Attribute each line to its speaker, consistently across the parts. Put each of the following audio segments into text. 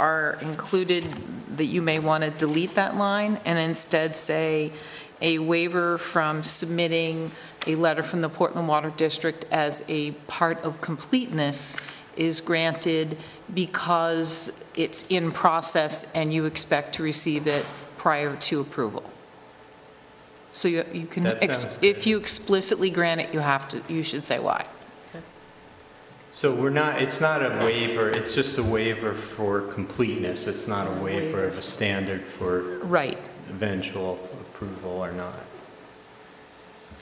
Speaker 1: are included, that you may want to delete that line and instead say a waiver from submitting a letter from the Portland Water District as a part of completeness is granted because it's in process and you expect to receive it prior to approval. So you you can,
Speaker 2: That
Speaker 1: ex-
Speaker 2: sounds
Speaker 1: if
Speaker 2: good.
Speaker 1: you explicitly grant it, you have to, you should say why.
Speaker 2: So we're not, it's not a waiver, it's just a waiver for completeness. It's not a waiver of a standard for
Speaker 1: Right.
Speaker 2: eventual approval or not.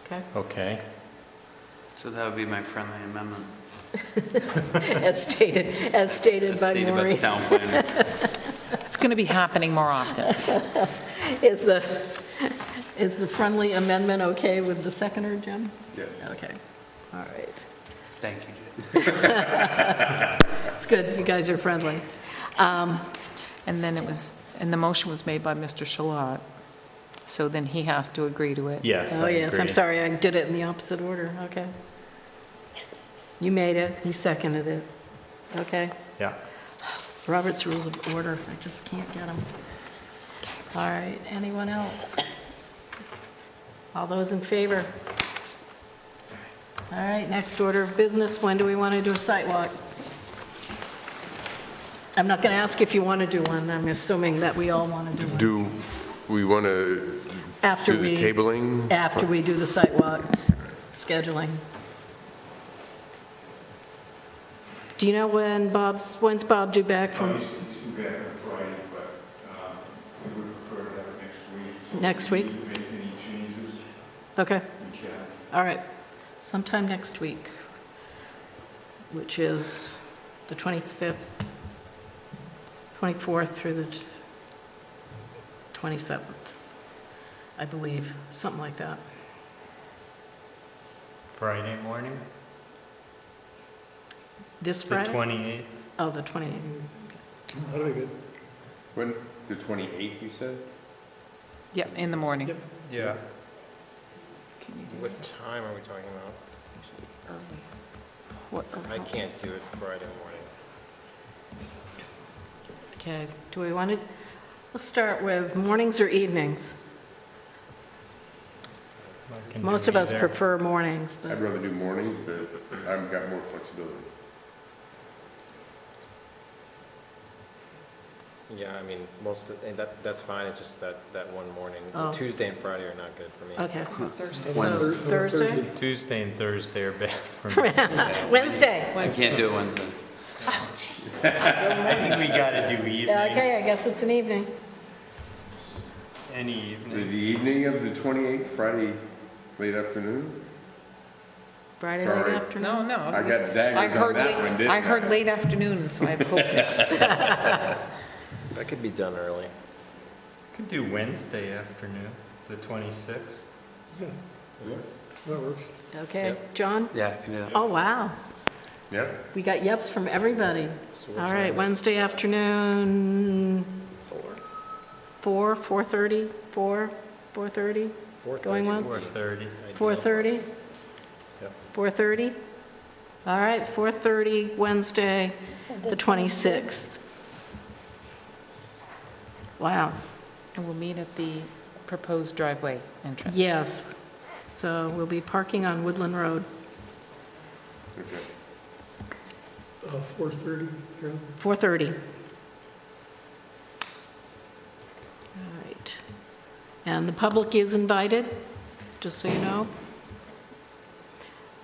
Speaker 1: Okay.
Speaker 2: Okay?
Speaker 3: So that would be my friendly amendment.
Speaker 4: As stated, as stated
Speaker 3: as
Speaker 4: by
Speaker 3: stated the
Speaker 4: Maureen,
Speaker 3: town planner.
Speaker 1: It's going to be happening more often.
Speaker 4: is the, is the friendly amendment okay with the seconder, Jim?
Speaker 3: Yes.
Speaker 4: Okay, all right.
Speaker 3: Thank you, Jim.
Speaker 4: It's good, you guys are friendly. Um,
Speaker 1: And then it was, and the motion was made by Mr. Shalat, so then he has to agree to it.
Speaker 2: Yes,
Speaker 4: Oh,
Speaker 2: I
Speaker 4: yes, I'm
Speaker 2: agree.
Speaker 4: sorry, I did it in the opposite order, okay. You made it, he seconded it, okay.
Speaker 2: Yeah.
Speaker 4: Robert's Rules of Order, I just can't get them. All right, anyone else? All those in favor? All right, next order of business, when do we want to do a site walk? I'm not going to ask if you want to do one, I'm assuming that we all want to do one.
Speaker 5: Do we want to
Speaker 4: After
Speaker 5: do the
Speaker 4: we,
Speaker 5: tabling?
Speaker 4: after we do the site walk, scheduling. Do you know when Bob's, when's Bob due back from?
Speaker 6: He's he's due back on Friday, but um, we would prefer to have it next week. So
Speaker 4: Next
Speaker 6: if we
Speaker 4: week?
Speaker 6: need to Make any changes,
Speaker 4: Okay,
Speaker 6: we can.
Speaker 4: all right. Sometime next week, which is the 25th, 24th through the t- 27th, I believe, something like that.
Speaker 2: Friday morning,
Speaker 4: This
Speaker 2: the
Speaker 4: Friday?
Speaker 2: 28th?
Speaker 4: Oh, the 28th.
Speaker 5: When, the 28th, you said?
Speaker 1: Yeah, in the morning.
Speaker 2: Yeah.
Speaker 1: Can you do
Speaker 7: What time are we talking about?
Speaker 1: early? What-
Speaker 7: I can't do it Friday morning.
Speaker 4: Okay, do we want to, let's start with mornings or evenings?
Speaker 2: I can do
Speaker 4: Most of us
Speaker 2: either.
Speaker 4: prefer mornings,
Speaker 5: I'd
Speaker 4: but,
Speaker 5: rather do mornings, but I've got more flexibility.
Speaker 7: Yeah, I mean, most, of- and that, that's fine, it's just that, that one morning.
Speaker 4: Oh.
Speaker 7: Tuesday and Friday are not good for me.
Speaker 4: okay. Thursday. So Thursday?
Speaker 2: Tuesday and Thursday are bad for me.
Speaker 4: Wednesday.
Speaker 3: I can't do it Wednesday.
Speaker 2: I think we gotta do evening,
Speaker 4: Okay, I guess it's an evening.
Speaker 2: any
Speaker 5: The
Speaker 2: evening.
Speaker 5: evening of the 28th, Friday, late afternoon?
Speaker 4: Friday
Speaker 5: Sorry.
Speaker 4: late afternoon?
Speaker 1: No, no.
Speaker 5: I got daggers
Speaker 1: I heard
Speaker 5: on that
Speaker 1: late-
Speaker 5: one, didn't
Speaker 1: I heard
Speaker 5: I?
Speaker 1: late afternoon, so I hope,
Speaker 7: That could be done early.
Speaker 2: Could do Wednesday afternoon, the 26th.
Speaker 4: Okay,
Speaker 7: Yep.
Speaker 4: John?
Speaker 3: Yeah, I can do that.
Speaker 4: Oh, wow.
Speaker 5: Yep.
Speaker 4: We got yeps from everybody.
Speaker 7: So what
Speaker 4: All
Speaker 7: time
Speaker 4: right,
Speaker 7: is-
Speaker 4: Wednesday afternoon,
Speaker 7: Four.
Speaker 4: 4, 4:30, 4, 4:30,
Speaker 7: Four
Speaker 4: Going
Speaker 7: thirty would
Speaker 4: once?
Speaker 7: be
Speaker 2: 4:30.
Speaker 7: ideal.
Speaker 4: 4:30?
Speaker 7: Yep.
Speaker 4: 4:30? All right, 4:30, Wednesday, the 26th. Wow,
Speaker 1: and we'll meet at the proposed driveway entrance.
Speaker 4: yes. So we'll be parking on Woodland Road,
Speaker 5: Okay.
Speaker 4: 4:30. All right. And the public is invited, just so you know.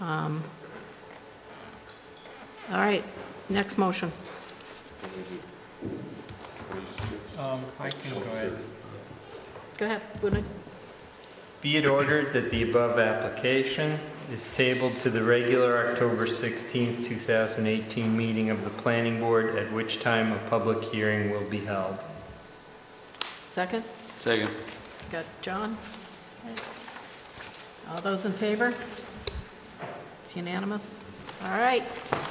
Speaker 4: Um, All right, next motion.
Speaker 2: Um, I can go ahead.
Speaker 4: Go ahead, Woodland.
Speaker 2: Be it ordered that the above application is tabled to the regular October 16th, 2018 meeting of the planning board, at which time a public hearing will be held.
Speaker 4: Second?
Speaker 3: Second.
Speaker 4: Got John? All those in favor? It's unanimous. All right.